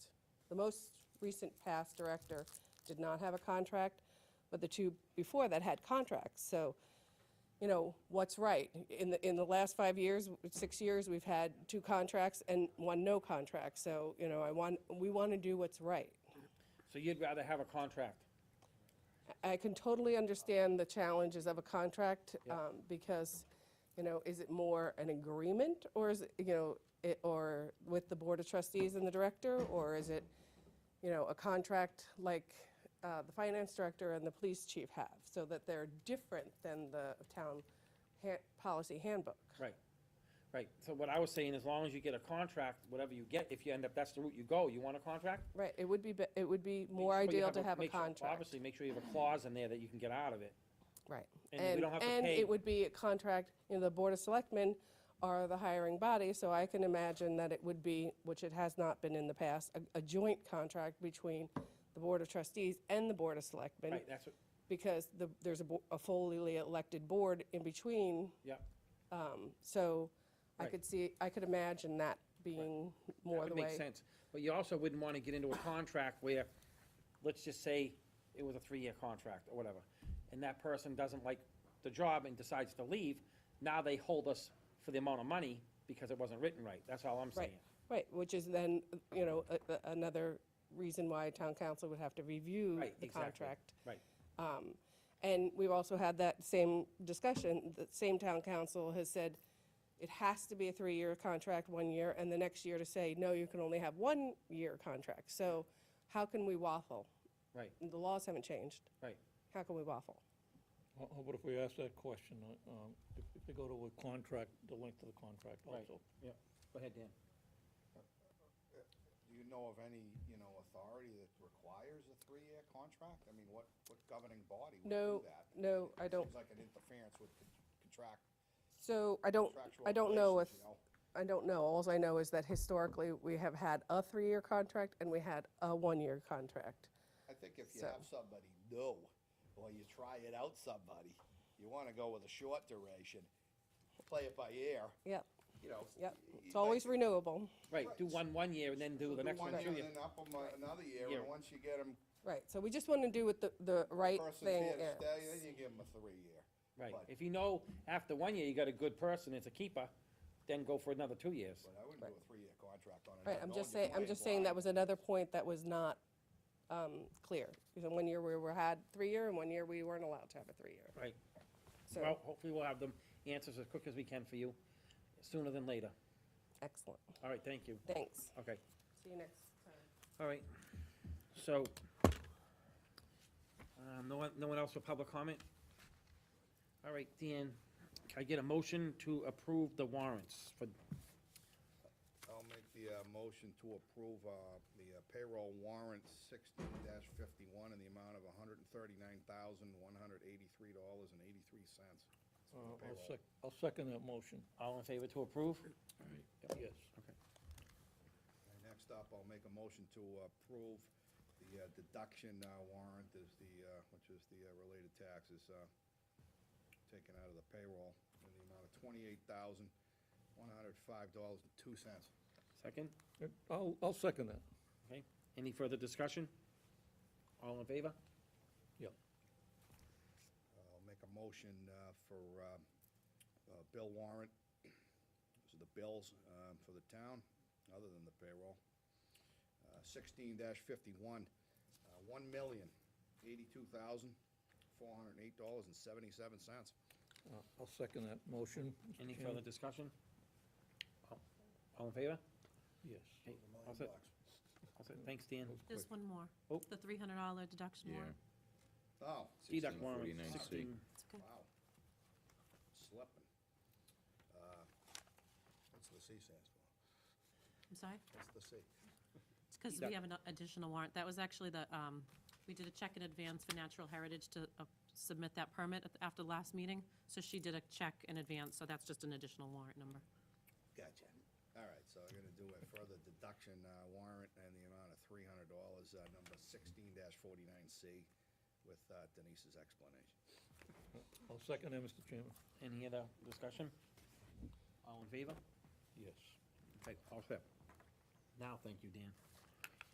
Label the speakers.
Speaker 1: The most recent past director did not have a contract, but the two before that had contracts. So, you know, what's right? In the, in the last five years, six years, we've had two contracts and one no contract. So, you know, I want, we want to do what's right.
Speaker 2: So you'd rather have a contract?
Speaker 1: I can totally understand the challenges of a contract, um, because, you know, is it more an agreement, or is it, you know, it, or with the Board of Trustees and the Director, or is it, you know, a contract like, uh, the Finance Director and the Police Chief have, so that they're different than the town ha- policy handbook?
Speaker 2: Right, right. So what I was saying, as long as you get a contract, whatever you get, if you end up, that's the route you go, you want a contract?
Speaker 1: Right, it would be, be- it would be more
Speaker 2: Make sure you
Speaker 1: ideal to have a
Speaker 2: make sure-
Speaker 1: contract.
Speaker 2: Obviously, make sure you have a clause in there that you can get out of it.
Speaker 1: Right.
Speaker 2: And we don't have to
Speaker 1: And
Speaker 2: pay-
Speaker 1: it would be a contract, you know, the Board of Selectmen are the hiring body, so I can imagine that it would be, which it has not been in the past, a, a joint contract between the Board of Trustees and the Board of Selectmen.
Speaker 2: Right, that's what,
Speaker 1: Because the, there's a, bo- a fully elected board in between,
Speaker 2: yeah.
Speaker 1: um, so I
Speaker 2: Right.
Speaker 1: could see, I could imagine that being more the
Speaker 2: That
Speaker 1: way.
Speaker 2: would make sense. But you also wouldn't want to get into a contract where, let's just say, it was a three-year contract or whatever, and that person doesn't like the job and decides to leave, now they hold us for the amount of money because it wasn't written right. That's all I'm saying.
Speaker 1: Right, right, which is then, you know, a- a- another reason why town council would have to review
Speaker 2: Right,
Speaker 1: the
Speaker 2: exactly.
Speaker 1: contract.
Speaker 2: Right,
Speaker 1: Um, And we've also had that same discussion, the same town council has said it has to be a three-year contract one year, and the next year to say, no, you can only have one-year contract. So how can we waffle?
Speaker 2: right,
Speaker 1: The laws haven't changed.
Speaker 2: right.
Speaker 1: How can we waffle?
Speaker 3: How how about if we ask that question, uh, um, if if they go to a contract, the length of the contract
Speaker 2: Right.
Speaker 3: also?
Speaker 2: Yeah, go ahead, Dan.
Speaker 4: Do you know of any, you know, authority that requires a three-year contract? I mean, what, what governing body would
Speaker 1: No,
Speaker 4: do that?
Speaker 1: no, I don't.
Speaker 4: Seems like an interference with con- contract,
Speaker 1: So I don't,
Speaker 4: contractual
Speaker 1: I don't know if,
Speaker 4: relations, you
Speaker 1: I
Speaker 4: know?
Speaker 1: don't know. Alls I know is that historically, we have had a three-year contract and we had a one-year contract.
Speaker 4: I think if you
Speaker 1: So-
Speaker 4: have somebody new, or you try it out somebody, you wanna go with a short duration, play it by ear,
Speaker 1: Yep,
Speaker 4: you know.
Speaker 1: yep.
Speaker 4: y-
Speaker 1: It's
Speaker 4: y-
Speaker 1: always
Speaker 4: like,
Speaker 1: renewable.
Speaker 2: Right, do one one year and then do the
Speaker 4: do
Speaker 2: next one
Speaker 4: one
Speaker 2: two
Speaker 4: year
Speaker 2: year.
Speaker 4: and then up 'em a- another year,
Speaker 2: Year.
Speaker 4: and once you get them,
Speaker 1: Right, so we just want to do what the, the right
Speaker 4: person's
Speaker 1: thing
Speaker 4: here to stay, then
Speaker 1: is.
Speaker 4: you give them a three-year.
Speaker 2: Right,
Speaker 4: But-
Speaker 2: if you know after one year you got a good person, it's a keeper, then go for another two years.
Speaker 4: But I wouldn't do a three-year contract on it.
Speaker 1: Right,
Speaker 4: not
Speaker 1: I'm
Speaker 4: knowing
Speaker 1: just
Speaker 4: you
Speaker 1: saying, I'm
Speaker 4: playing
Speaker 1: just saying that
Speaker 4: blind.
Speaker 1: was another point that was not, um, clear. Because in one year we were, had three-year, and one year we weren't allowed to have a three-year.
Speaker 2: Right, well,
Speaker 1: So,
Speaker 2: hopefully we'll have them answers as quick as we can for you, sooner than later.
Speaker 1: excellent.
Speaker 2: All right, thank you.
Speaker 1: Thanks.
Speaker 2: Okay,
Speaker 1: See you next time.
Speaker 2: all right, so, um, no one, no one else for public comment? All right, Dan, can I get a motion to approve the warrants for,
Speaker 4: I'll make the uh, motion to approve uh, the uh, payroll warrant sixteen fifty-one in the amount of hundred and thirty-nine thousand, one hundred eighty-three dollars and eighty-three cents.
Speaker 3: Uh, I'll sec, I'll second that motion,
Speaker 2: all in favor to approve?
Speaker 3: yes.
Speaker 4: Next up, I'll make a motion to approve the uh, deduction uh, warrant is the, uh, which is the uh, related taxes uh, taken out of the payroll in the amount of twenty-eight thousand, one hundred five dollars and two cents.
Speaker 2: Second?
Speaker 3: Uh, I'll, I'll second that,
Speaker 2: Okay, any further discussion? All in favor?
Speaker 3: yep.
Speaker 4: I'll make a motion uh, for uh, uh, bill warrant. Those are the bills um, for the town, other than the payroll. Uh, Sixteen fifty-one, uh, one million, eighty-two thousand, four hundred and eight dollars and seventy-seven cents.
Speaker 3: Uh, I'll second that motion. Mr.
Speaker 2: Any
Speaker 3: Chairman.
Speaker 2: further discussion? All- All in favor?
Speaker 3: Yes.
Speaker 2: Okay, all set. All set. Thanks, Dan.
Speaker 5: Just one more.
Speaker 2: Oh.
Speaker 5: The three hundred dollar deduction
Speaker 6: Yeah.
Speaker 5: warrant.
Speaker 4: Oh,
Speaker 2: Deduct
Speaker 6: 16,
Speaker 2: E warrant,
Speaker 6: 49, six.
Speaker 2: sixteen.
Speaker 5: It's okay.
Speaker 4: wow. Slipping. Uh, What's the C stands for?
Speaker 5: I'm sorry.
Speaker 4: What's the C?
Speaker 5: It's because
Speaker 2: Deduct.
Speaker 5: we have an additional warrant. That was actually the, um, we did a check in advance for Natural Heritage to uh, submit that permit at the- after the last meeting. So she did a check in advance, so that's just an additional warrant number.
Speaker 4: Gotcha. All right, so I'm gonna do a further deduction uh, warrant and the amount of three hundred dollars, uh, number sixteen forty-nine C, with uh, Denise's explanation.
Speaker 3: I'll second that, Mr. Chairman,
Speaker 2: Any other discussion? All in favor?
Speaker 3: yes.
Speaker 2: Okay, all set. Now, thank you, Dan.